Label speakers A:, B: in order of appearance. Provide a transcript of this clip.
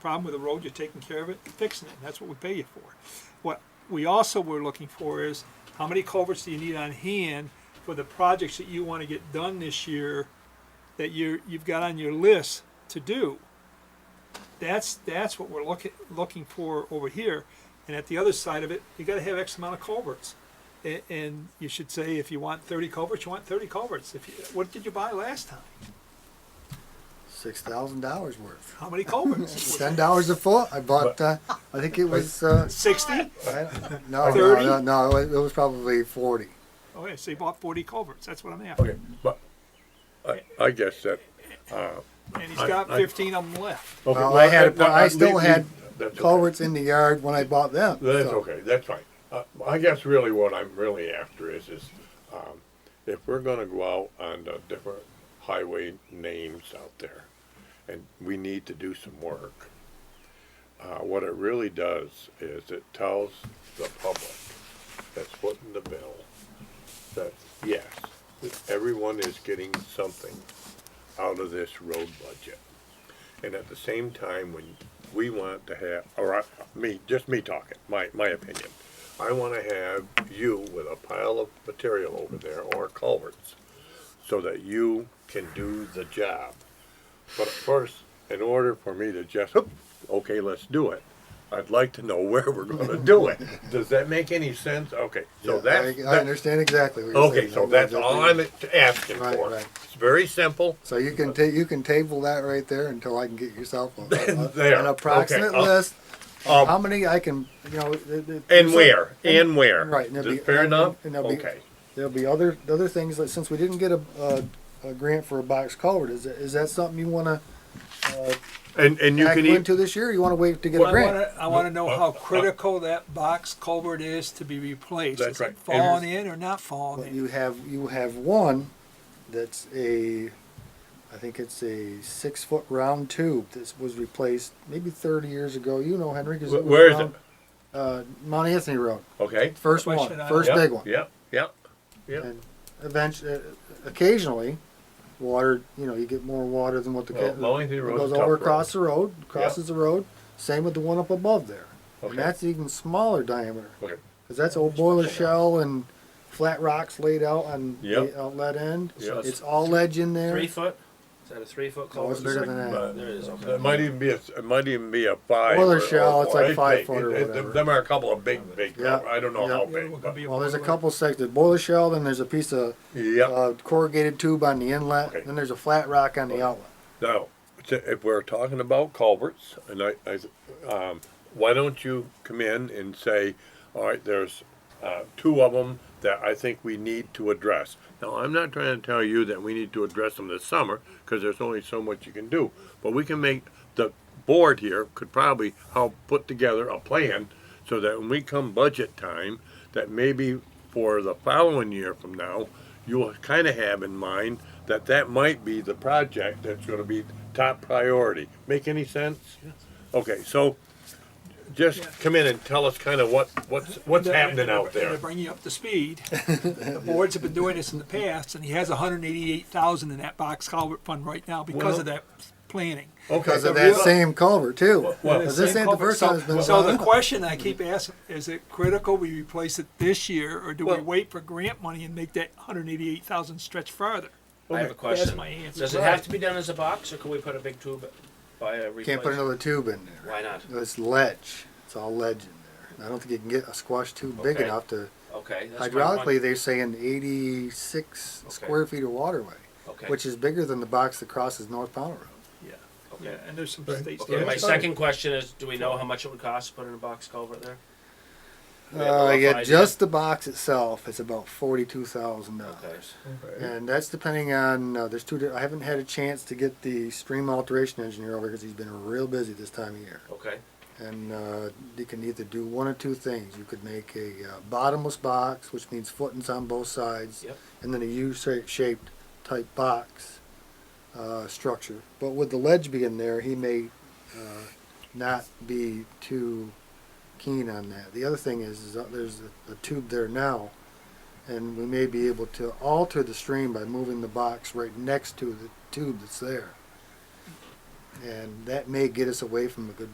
A: problem with the road, you're taking care of it, fixing it, and that's what we pay you for. What we also were looking for is, how many culverts do you need on hand for the projects that you wanna get done this year that you're, you've got on your list to do? That's, that's what we're looking, looking for over here, and at the other side of it, you gotta have X amount of culverts. A- and you should say, if you want thirty culverts, you want thirty culverts, if you, what did you buy last time?
B: Six thousand dollars worth.
A: How many culverts?
B: Ten dollars a foot. I bought. Uh, I think it was. Uh,
A: Sixty?
B: I- no, no,
A: Thirty?
B: no, no. It was, it was probably forty.
A: Oh, yeah, so you bought forty culverts, that's what I'm after.
C: Okay, but I, I guess that.
A: And he's
C: I-
A: got
C: I-
A: fifteen of them left.
C: okay,
B: Well, I had.
C: that- that-
B: I still
C: leave-
B: had
C: leave- that's okay.
B: culverts in the yard when I bought them.
C: That's
B: so-
C: okay, that's fine. Uh, I guess really what I'm really after is, is, um, if we're gonna go out on the different highway names out there, and we need to do some work, uh, what it really does is it tells the public that's footing the bill that, yes, everyone is getting something out of this road budget. And at the same time, when we want to have, or I, me, just me talking, my, my opinion, I want to have you with a pile of material over there or culverts so that you can do the job. But first, in order for me to just, "Oop, okay, let's do it, I'd like to know where we're going to do it. Does that make any sense? Okay, so
B: Yeah,
C: that's.
B: I, I
C: that-
B: understand exactly what you're
C: Okay,
B: saying.
C: so
B: I'm
C: that's
B: just-
C: all I'm asking
B: Right,
C: for.
B: right.
C: It's very simple.
B: So you can ta- you can table that right there until I can get yourself a, a,
C: There,
B: an approximate
C: okay, uh, I'll-
B: list.
C: I'll-
B: of how many I can you know? th- th-
C: And
B: so-
C: where? And where?
B: Right, and it'll
C: Is
B: be-
C: it fair
B: and-
C: enough?
B: and it'll be-
C: Okay.
B: There'll be other, other things, like, since we didn't get a, a, a grant for a box culvert, is, that- is that something you wanna
C: And, and you
B: back
C: can eat,
B: into this year, or you wanna wait to get
A: Well,
B: a
A: I
B: grant?
A: wanna, I wanna know
C: uh,
A: how critical that box culvert is to be replaced.
C: That's
A: Is it
C: right.
A: falling in or not falling
B: But
A: in?
B: you have, you have one that's a, I think it's a six-foot round tube that was replaced maybe thirty years ago, you know, Henry, 'cause
C: Wh-
B: was
C: where is
B: around, Uh, Mount Anthony Road,
C: okay?
B: first one,
A: Question I-
B: first
C: Yep,
B: big one.
C: Yep, yep, yep.
B: And eventually, occasionally, water, you know, you get more water than what the.
C: Well,
B: ca-
C: Wellington
B: it
C: Road's
B: Goes
C: a tough
B: over
C: road.
B: across the road, crosses the road, same with the one up above there.
C: Okay.
B: And that's even smaller diameter,
C: Okay,
B: cause that's old boiler shell and flat rocks laid out on
C: Yep.
B: the outlet end.
C: Yep.
B: It's all ledge in there.
D: Three foot? Is that a three foot
B: Oh,
D: culvert?
B: it's bigger than that.
C: but
D: There it is, okay.
C: it might even be, a it might even be a five.
B: Well, they're
C: or-
B: shallow, it's
C: or
B: like
C: eight
B: five
C: big.
B: foot or
C: It- it-
B: whatever.
C: Them are a couple of big, big,
B: Yeah,
C: I don't know
B: yeah.
A: Yeah,
C: how
A: it
C: big,
A: could
C: but,
A: be a
B: Well, there's a
A: boiler.
B: couple sections, boiler shell, then there's a piece of,
C: yep.
B: uh, corrugated tube on the
C: Okay.
B: inlet, then there's a flat rock on the outlet.
C: Now, t- if we're talking about culverts, and I, I, um, why don't you come in and say, all right, there's, uh, two of them that I think we need to address. Now, I'm not trying to tell you that we need to address them this summer, cause there's only so much you can do. But we can make, the board here could probably help put together a plan so that when we come budget time, that maybe for the following year from now, you'll kind of have in mind that that might be the project that's going to be top priority. Make any sense? Okay, so just
A: Yeah.
C: come in and tell us kind of what, what's, what's
A: And to-
C: happening
A: and
C: out
A: to- and
C: there.
A: To bring you up to speed, the boards have been doing this in the past, and he has hundred and eighty-eight thousand in that box culvert fund right now because of that planning.
C: Okay,
B: Cause of that same culvert too,
C: Well,
B: cause this
A: Same
B: ain't the
A: culvert.
B: first
A: So-
B: time it's been done.
A: So the
C: uh-huh.
A: question I keep asking, is it critical we replace it this year, or do we
C: Well-
A: wait for grant money and make that hundred and eighty-eight thousand stretch farther?
D: I have
C: Okay.
D: a question.
A: That's my answer.
D: Does it have to be done as a box or can we put a big tube by a replace?
B: Can't put another tube in there.
D: Why not?
B: It's ledge. It's all ledge in there. I don't think you can get a squash tube big
D: Okay.
B: enough to,
D: Okay. that's my
B: hydraulically, they're saying eighty-six
D: Okay.
B: square feet of waterway,
D: one- Okay.
B: which is bigger than the box that crosses North Powell Road.
A: Yeah, yeah,
D: Okay.
A: and there's some
C: Right.
A: states.
C: Yeah,
D: Okay, my
C: that's fine.
D: second question is, do we know how much it would cost to put in a box culvert there? We have a
B: Uh,
D: rough
B: yeah,
D: idea.
B: just the box itself is about forty-two thousand
D: Okay.
B: dollars. And that's depending on, uh, there's two, di- I haven't had a chance to get the stream alteration engineer over because he's been real busy this time of year.
D: Okay.
B: And uh, you can either do one or two things. You could make a uh, bottomless box, which means footings on both sides,
D: Yep.
B: and then a U-shaped type box uh, structure. But with the ledge being there, he may uh, not be too keen on that. The other thing is, is that there's a, a tube there now, and we may be able to alter the stream by moving the box right next to the tube that's there. And that may get us away from a good